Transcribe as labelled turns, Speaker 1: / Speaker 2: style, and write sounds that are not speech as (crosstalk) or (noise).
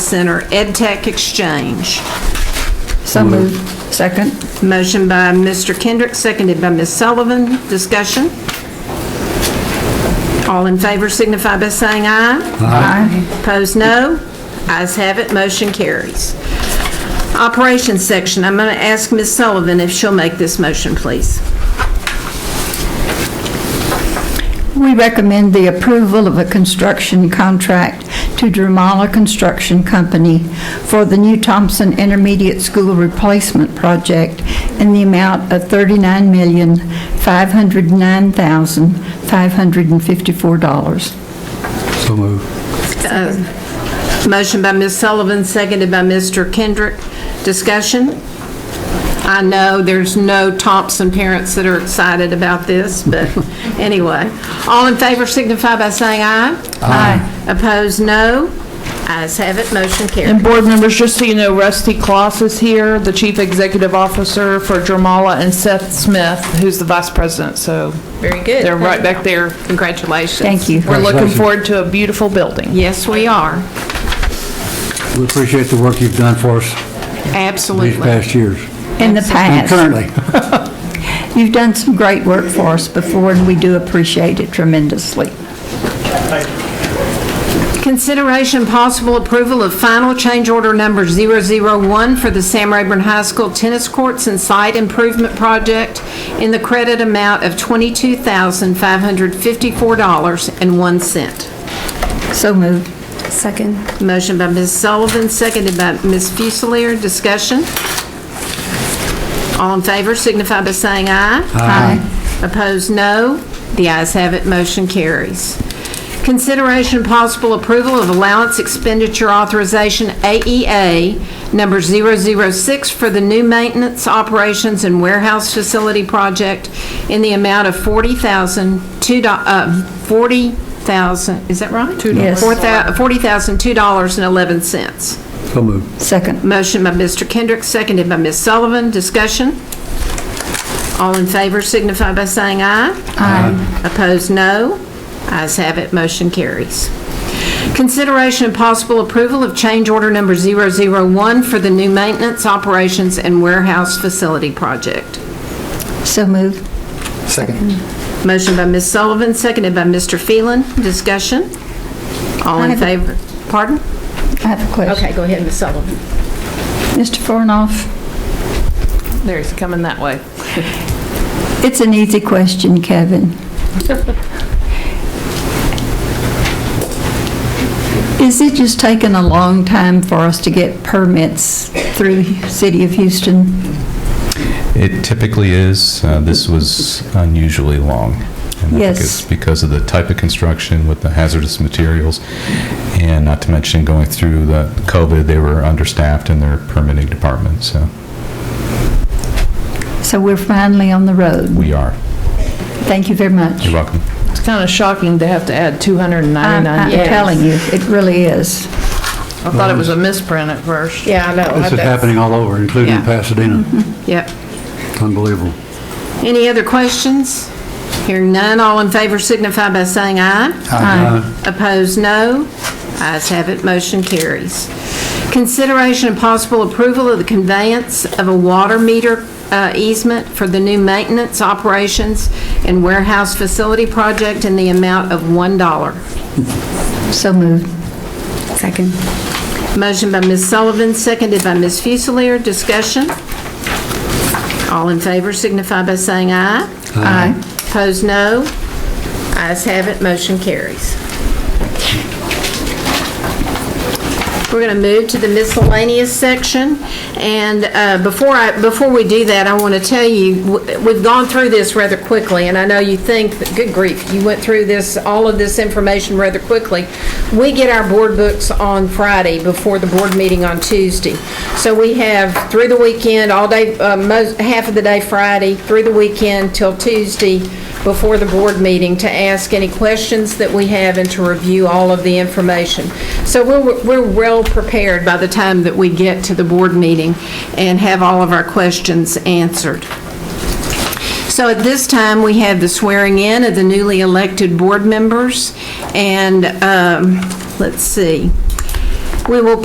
Speaker 1: Center EdTech Exchange.
Speaker 2: So moved. Second.
Speaker 1: Motion by Mr. Kendrick, seconded by Ms. Sullivan. Discussion? All in favor signify by saying aye. Aye. Opposed, no. Ayes have it, motion carries. Operations section, I'm going to ask Ms. Sullivan if she'll make this motion, please.
Speaker 2: We recommend the approval of a construction contract to Dramala Construction Company for the new Thompson Intermediate School Replacement Project in the amount of $39,509,554.
Speaker 3: So move.
Speaker 1: Uh, Motion by Ms. Sullivan, seconded by Mr. Kendrick. Discussion? I know there's no Thompson parents that are excited about this, but (laughs) anyway. All in favor signify by saying aye. Aye. Opposed, no. Ayes have it, motion
Speaker 4: And
Speaker 1: carried.
Speaker 4: board members, just so you know, Rusty Kloss is here, the Chief Executive Officer for Dramala, and Seth Smith, who's the Vice President, so. Very good. They're right back there. Congratulations.
Speaker 2: Thank you.
Speaker 4: We're looking
Speaker 3: Congratulations.
Speaker 4: forward to a beautiful building.
Speaker 1: Yes, we are.
Speaker 3: We appreciate the work you've done for us these
Speaker 1: Absolutely.
Speaker 3: past years.
Speaker 2: In the
Speaker 3: And
Speaker 2: past,
Speaker 3: currently,
Speaker 2: you've done some great work for us before, and we do appreciate it tremendously.
Speaker 1: Consideration possible approval of final change order number 001 for the Sam Rayburn High School Tennis Courts and Site Improvement Project in the credit amount of $22,554.01.
Speaker 2: So moved.
Speaker 5: Second.
Speaker 1: Motion by Ms. Sullivan, seconded by Ms. Fusiliar. Discussion? All in favor signify by saying aye. Aye. Opposed, no. The ayes have it, motion carries. Consideration and possible approval of allowance expenditure authorization, AEA, number 006, for the new maintenance operations and warehouse facility project in the amount of 40000 two do- uh, 40000 is that right?
Speaker 2: Yes.
Speaker 1: Four thou- $40,002.11.
Speaker 3: so move.
Speaker 2: Second.
Speaker 1: Motion by Mr. Kendrick, seconded by Ms. Sullivan. Discussion? All in favor signify by saying aye. Aye. Opposed, no. Ayes have it, motion carries. Consideration and possible approval of change order number 001 for the new maintenance, operations, and warehouse facility project.
Speaker 2: So moved.
Speaker 1: Motion by Ms. Sullivan, seconded by Mr. Phelan. Discussion? All
Speaker 2: I
Speaker 1: in
Speaker 2: have a-
Speaker 1: favor? Pardon?
Speaker 2: I have a question.
Speaker 1: go ahead, Ms. Sullivan.
Speaker 2: Mr. Fornoff?
Speaker 4: There, he's coming that way.
Speaker 2: It's an easy question, Kevin. Is it just taking a long time for us to get permits through City of Houston?
Speaker 6: It typically is. Uh, This was unusually long. and I think
Speaker 2: Yes.
Speaker 6: it's Because of the type of construction with the hazardous materials, and not to mention going through the COVID, they were understaffed in their permitting department, so
Speaker 2: So we're finally on the road.
Speaker 6: we are.
Speaker 2: Thank you very much.
Speaker 6: You're welcome.
Speaker 4: It's kind of shocking to have to add
Speaker 2: I'm
Speaker 4: 299.
Speaker 2: I'm telling you, it really is.
Speaker 4: I thought it was a misprint at first.
Speaker 5: Yeah, I know.
Speaker 3: This is happening all over, including
Speaker 1: Yeah.
Speaker 3: Pasadena.
Speaker 1: Yep.
Speaker 3: Unbelievable.
Speaker 1: Any other questions? Hearing none, all in favor signify by saying aye. Aye. Opposed, no. Ayes have it, motion carries. Consideration and possible approval of the conveyance of a water meter uh, easement for the new maintenance, operations, and warehouse facility project in the amount of $1.
Speaker 2: So moved.
Speaker 5: Second.
Speaker 1: Motion by Ms. Sullivan, seconded by Ms. Fusiliar. Discussion? All in favor signify by saying aye.
Speaker 2: Aye.
Speaker 1: Opposed, no. Ayes have it, motion carries. We're going to move to the miscellaneous section, and uh, before I, before we do that, I want to tell you, w- we've gone through this rather quickly, and I know you think, that- good grief, you went through this, all of this information rather quickly. We get our board books on Friday before the board meeting on Tuesday. So we have through the weekend, all day, uh, most, half of the day Friday, through the weekend till Tuesday, before the board meeting to ask any questions that we have and to review all of the information. So we're, we're well prepared by the time that we get to the board meeting and have all of our questions answered. So at this time, we have the swearing in of the newly elected board members, and, um, let's see. We will